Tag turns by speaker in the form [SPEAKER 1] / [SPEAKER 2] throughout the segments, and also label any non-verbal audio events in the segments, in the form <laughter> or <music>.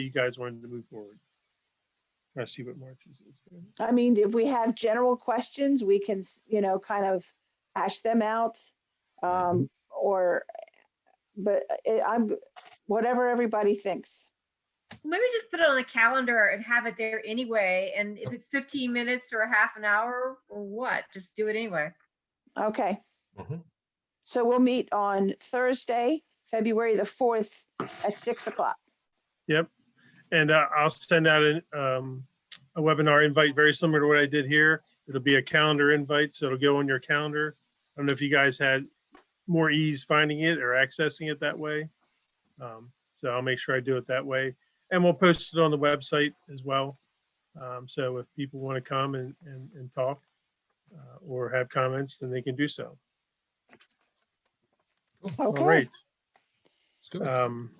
[SPEAKER 1] you guys wanted to move forward. I see what March's is.
[SPEAKER 2] I mean, if we have general questions, we can, s- you know, kind of hash them out.
[SPEAKER 1] Mm-hmm.
[SPEAKER 2] Um, or, but uh, it, I'm, whatever everybody thinks.
[SPEAKER 3] Maybe just put it on the calendar and have it there anyway. And if it's 15 minutes or a half an hour or what, just do it anyway.
[SPEAKER 2] Okay.
[SPEAKER 4] Mhm.
[SPEAKER 2] So we'll meet on Thursday, February the fourth at six o'clock.
[SPEAKER 1] And uh, I'll send out an, um, a webinar invite very similar to what I did here. It'll be a calendar invite, so it'll go on your calendar. I don't know if you guys had more ease finding it or accessing it that way. Um, So I'll make sure I do it that way. And we'll post it on the website as well. Um, So if people want to come and, and, and talk uh, or have comments, then they can do so. All
[SPEAKER 2] Okay.
[SPEAKER 1] right.
[SPEAKER 4] Let's do it.
[SPEAKER 1] Um,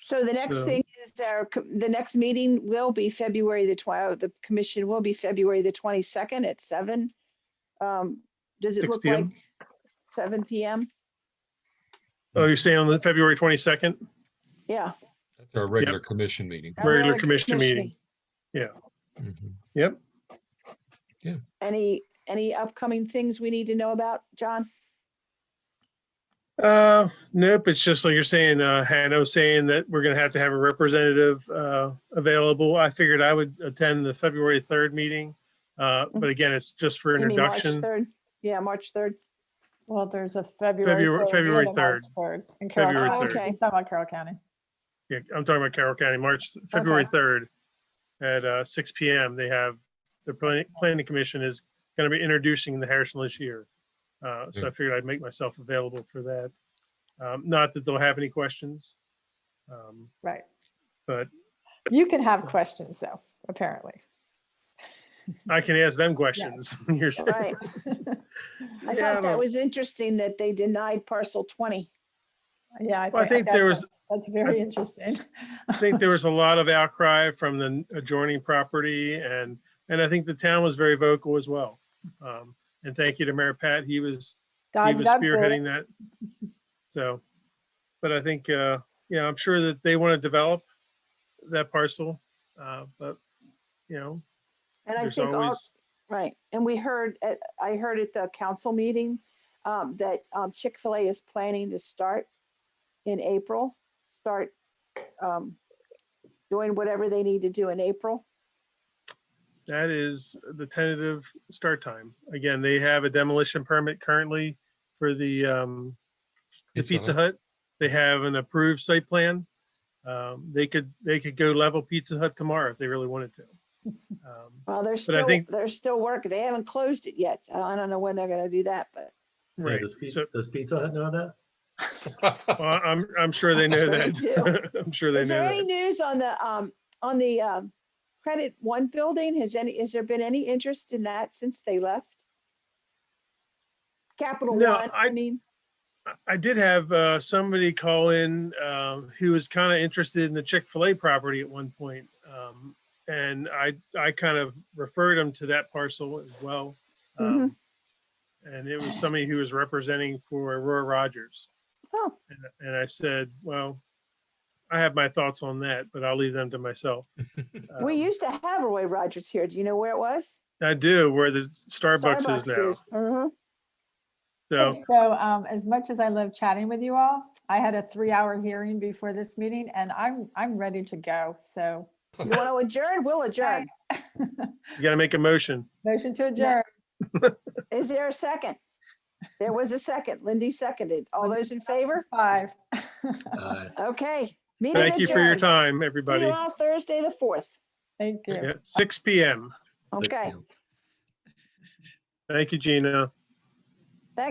[SPEAKER 2] So the next
[SPEAKER 1] So-
[SPEAKER 2] thing is our, co- the next meeting will be February the twelfth, the commission will be February the twenty-second at seven. Um, does it
[SPEAKER 1] 6
[SPEAKER 2] look like
[SPEAKER 1] PM?
[SPEAKER 2] seven PM?
[SPEAKER 1] Oh, you're saying on the February 22nd?
[SPEAKER 2] Yeah.
[SPEAKER 4] That's our regular commission meeting.
[SPEAKER 2] our
[SPEAKER 1] Regular commission meeting.
[SPEAKER 4] Mhm.
[SPEAKER 2] Any, any upcoming things we need to know about, John?
[SPEAKER 1] Uh, nope, it's just like you're saying, uh, Hanno saying that we're gonna have to have a representative, uh, available. I figured I would attend the February third meeting. Uh, but again, it's just for
[SPEAKER 2] Mm-hmm. You mean March
[SPEAKER 1] introduction.
[SPEAKER 2] 3rd? Yeah, March third.
[SPEAKER 5] Well, there's a February.
[SPEAKER 1] Februar-
[SPEAKER 5] third
[SPEAKER 1] February
[SPEAKER 5] and a March Third. In Carroll
[SPEAKER 1] February
[SPEAKER 5] County.
[SPEAKER 2] third. Okay.
[SPEAKER 5] It's not about Carroll County.
[SPEAKER 1] Yeah, I'm talking about Carroll County, March, February third at, uh, six P M. They have, the planning, planning commission is gonna be introducing the Harrison Year. Uh, so I figured I'd make myself available for that. Um, not that they'll have any questions. Um,
[SPEAKER 5] Right.
[SPEAKER 1] but
[SPEAKER 5] You can have questions though, apparently.
[SPEAKER 1] I can ask them questions. <laughs> You're saying-
[SPEAKER 2] <laughs> Right. I
[SPEAKER 1] Yeah,
[SPEAKER 2] thought
[SPEAKER 1] but-
[SPEAKER 2] that was interesting that they denied parcel 20.
[SPEAKER 5] Yeah, I
[SPEAKER 1] Well, I
[SPEAKER 5] think
[SPEAKER 1] think there
[SPEAKER 5] that's-
[SPEAKER 1] was,
[SPEAKER 5] That's
[SPEAKER 1] <laughs>
[SPEAKER 5] very interesting.
[SPEAKER 1] I think there was a lot of outcry from the adjoining property and, and I think the town was very vocal as well. Um, and thank you to Mayor Pat. He was, he was
[SPEAKER 5] Dodged that bullet.
[SPEAKER 1] spearheading that. So, but I think, uh, yeah, I'm sure that they want to develop that parcel. Uh, but, you know,
[SPEAKER 2] And I
[SPEAKER 1] there's
[SPEAKER 2] think all,
[SPEAKER 1] always,
[SPEAKER 2] right, and we heard, at- I heard at the council meeting um, that um, Chick-fil-A is planning to start in April, start um, doing whatever they need to do in April.
[SPEAKER 1] that is the tentative start time. Again, they have a demolition permit currently for the, um, the Pizza Hut. They have an approved site plan. Um, they could, they could go level Pizza Hut tomorrow if they really wanted
[SPEAKER 2] <laughs>
[SPEAKER 1] to. Um,
[SPEAKER 2] Well, they're still,
[SPEAKER 1] think-
[SPEAKER 2] they're still working. They haven't closed it yet. I don't- I don't know when they're going to do that, but
[SPEAKER 6] Yeah,
[SPEAKER 1] Right,
[SPEAKER 6] Does Pi-
[SPEAKER 1] so,
[SPEAKER 6] does Pizza Hut know that?
[SPEAKER 4] Mm-hmm.
[SPEAKER 1] <laughs> well, I'm, I'm sure they know
[SPEAKER 2] Sure they
[SPEAKER 1] that. <laughs> I'm sure they
[SPEAKER 2] is there
[SPEAKER 1] know
[SPEAKER 2] any
[SPEAKER 1] that.
[SPEAKER 2] news on the, um, on the um, Credit One building? Has any, has there been any interest in that since they left? Capital
[SPEAKER 1] No,
[SPEAKER 2] One, I
[SPEAKER 1] I-
[SPEAKER 2] mean,
[SPEAKER 1] I did have, uh, somebody call in, um, who was kind of interested in the Chick-fil-A property at one point. Um, and I, I kind of referred him to that parcel as well. Um,
[SPEAKER 2] Mm-hmm.
[SPEAKER 1] And it was somebody who was representing for Aurora Rogers.
[SPEAKER 2] oh,
[SPEAKER 1] And, and I said, well, I have my thoughts on that, but I'll leave them to myself.
[SPEAKER 2] we
[SPEAKER 1] Um,
[SPEAKER 2] used to have Roy Rogers here. Do you know where it was?
[SPEAKER 1] I do, where the Starbucks is now.
[SPEAKER 2] Mhm.
[SPEAKER 1] So,
[SPEAKER 5] So um, as much as I love chatting with you all, I had a three-hour hearing before this meeting and I'm, I'm ready to go. So
[SPEAKER 2] You
[SPEAKER 1] <laughs>
[SPEAKER 2] want to adjourn? We'll adjourn.
[SPEAKER 1] you gotta make a motion.
[SPEAKER 5] motion to adjourn.
[SPEAKER 2] Is there a second? There was a second. Lindy seconded. All those in favor?
[SPEAKER 5] Five.
[SPEAKER 4] <laughs>
[SPEAKER 6] Uh,
[SPEAKER 2] Okay. meeting
[SPEAKER 1] Thank you for your
[SPEAKER 2] adjourned.
[SPEAKER 1] time,
[SPEAKER 2] See
[SPEAKER 1] everybody.
[SPEAKER 2] you all Thursday, the fourth.
[SPEAKER 5] Thank you.
[SPEAKER 1] Yeah, Six PM.
[SPEAKER 6] but,
[SPEAKER 2] Okay.
[SPEAKER 6] you know,
[SPEAKER 1] Thank you, Gina.